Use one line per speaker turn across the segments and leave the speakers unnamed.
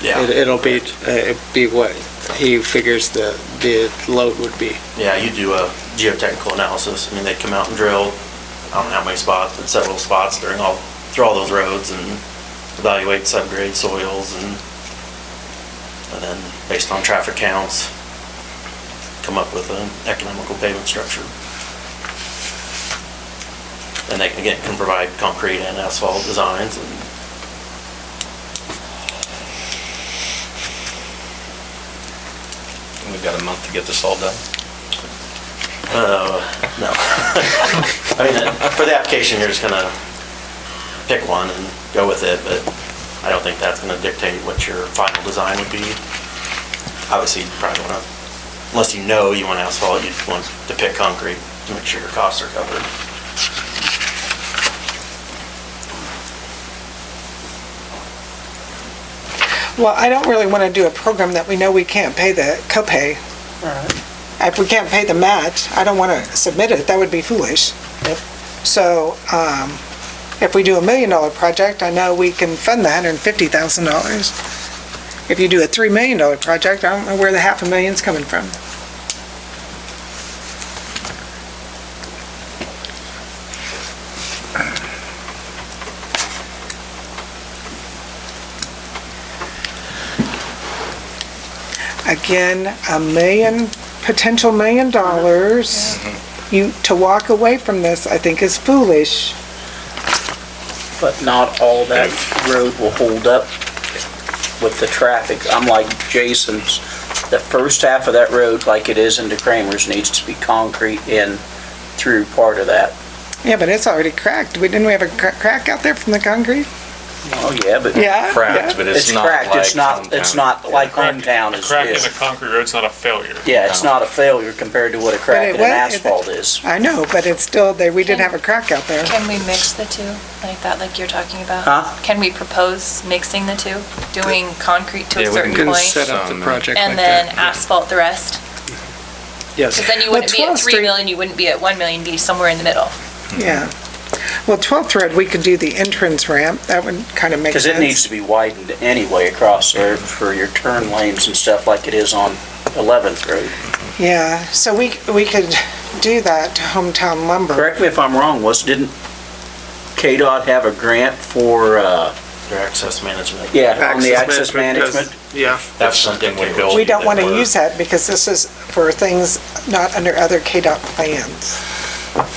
It-
Yeah,
It'll be, uh, be what he figures the, the load would be.
yeah, you do a geotechnical analysis. I mean, they come out and drill, I don't know how many spots, but several spots during all, through all those roads and evaluate subgrade soils and, and then based on traffic counts, come up with an economical pavement structure. And they can, again, can provide concrete and asphalt designs and
We've got a month to get this all done.
Uh, no. I mean, uh, for the application, you're just gonna pick one and go with it, but I don't think that's gonna dictate what your final design would be. Obviously, you probably wanna, unless you know you want asphalt, you'd want to pick concrete to make sure your costs are covered.
Well, I don't really want to do a program that we know we can't pay the copay. If we can't pay the match, I don't want to submit it, that would be foolish. So, um, if we do a million dollar project, I know we can fund the hundred and fifty thousand dollars. If you do a three million dollar project, I don't know where the half a million's coming from. Again, a million, potential million dollars, you, to walk away from this, I think is foolish.
But not all that road will hold up with the traffic. I'm like Jason's, the first half of that road, like it is into Kramer's, needs to be concrete in through part of that.
Yeah, but it's already cracked. We, didn't we have a cra- crack out there from the concrete?
Oh, yeah, but.
Yeah?
Cracked, but
It's
it's not like.
cracked, it's not, it's
hometown.
not like
Crack-
hometown
a
is.
Crack in
is.
a concrete road's not a failure.
Yeah, it's not a failure compared to what a
it
crack in
was-
an asphalt is.
I know, but it's still there. We did have a crack out there.
Can we mix the two like that, like you're talking about?
Huh?
Can we propose mixing the two, doing concrete to
Yeah,
a
we
certain
can
Can
point
set up the project like
and then
that.
asphalt the rest? Because
Yes,
then you wouldn't be at
12th
3
Street-
million, you wouldn't be at 1 million, you'd be somewhere in the middle.
Mm-hmm.
Yeah. Well, 12th Road, we could do the entrance ramp. That would kind of make
Because
sense.
it needs to be widened anyway across there for your turn lanes and stuff like it is on 11th Road.
Yeah, so we, we could do that to hometown lumber.
Correct me if I'm wrong, was, didn't KDOT have a grant for, uh,
Your access management.
yeah, on the access management?
Yeah.
That's something we build.
We don't want to use that because this is for things not under other KDOT plans.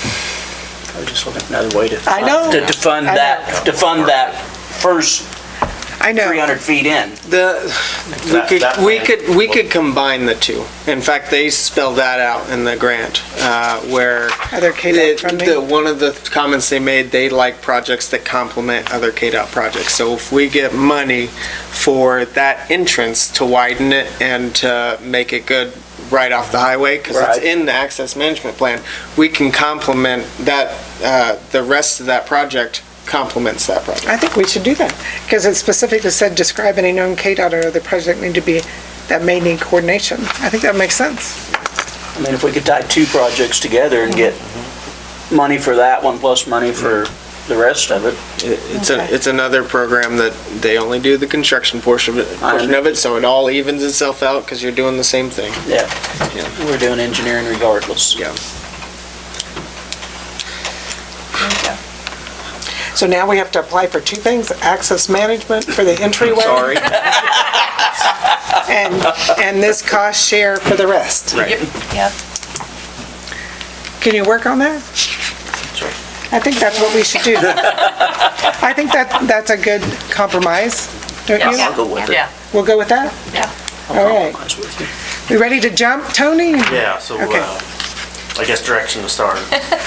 I was just looking at another way to.
I know.
To to fund
I know.
that, to fund that first
I know.
300 feet in.
The, we
That- that
could, we
plan-
could, we could combine the two. In fact, they spell that out in the grant, uh, where.
Other KDOT
it-
funding?
the- One of the comments they made, they like projects that complement other KDOT projects. So if we get money for that entrance to widen it and to make it good right off the highway, because it's
Right.
in the access management plan, we can complement that, uh, the rest of that project complements that project.
I think we should do that, because it specifically said, describe any known KDOT or other project need to be, that may need coordination. I think that makes sense.
I mean, if we could tie two projects together and get money for that one plus money for the rest of it.
It- It's a,
Okay.
it's another program that they only do the construction portion of it,
I
portion of it, so it all evens itself out because you're doing the same thing.
Yeah,
Yeah.
we're doing engineering regardless.
Yeah.
There you go.
So now we have to apply for two things, access management for the entryway. Sorry. And, and this cost share for the rest.
Yep.
Can you work on that?
Sure.
I think that's what we should do. I think that, that's a good compromise, don't
Yes.
you?
I'll go with it.
Yeah.
We'll go with that?
Yeah.
I'll
All right.
compromise with you.
We ready to jump, Tony?
Yeah, so,
Okay.
uh, I guess direction to start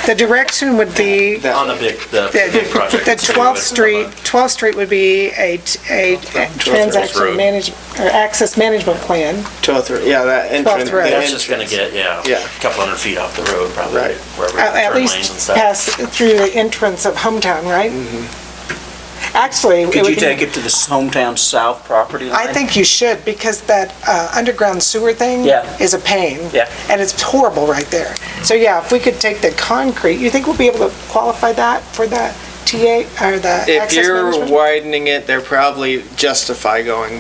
The direction would be
on the big, the
The
big project.
the
is to do
12th
it from
Street,
a-
12th Street would be a, t- a transaction
Road.
management, or access management plan.
Twelfth, Road- oh yeah, that entrance.
Twelfth Road.
the
That's just gonna
entrance.
get, yeah,
Yeah.
a couple hundred feet off the road, probably,
Right.
wherever
At-
the
At
turn lanes and
least
stuff.
pass through the entrance of hometown, right?
Mm-hmm.
Actually, it
Could you
would
take
be,
it to the hometown south property line?
I think you should, because that uh, underground sewer thing
Yeah.
is a pain.
Yeah.
And it's horrible right there. So yeah, if we could take the concrete, you think we'll be able to qualify that for the TA, or the access
If you're
management?
widening it, they're probably justify going